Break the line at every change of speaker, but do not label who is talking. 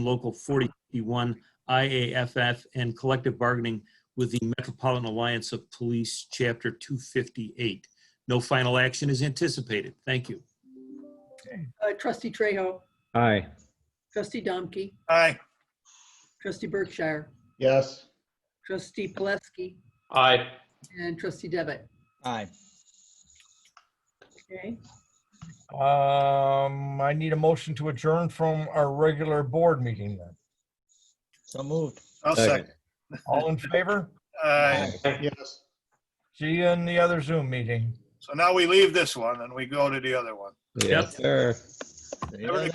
Local 41 IAFF and collective bargaining with the Metropolitan Alliance of Police, Chapter 258. No final action is anticipated. Thank you.
Uh, Trustee Trejo,
Aye.
trustee Domke,
Aye.
trustee Berkshire,
Yes.
trustee Poleski,
Aye.
and trustee Devitt.
Aye.
Okay,
Um, I need a motion to adjourn from our regular board meeting then.
So moved.
I'll
Second.
second.
All in favor?
Aye. Yes.
See you in the other Zoom meeting.
So now we leave this one and we go to the other one.
Yes, sir.
There you
Have a
go.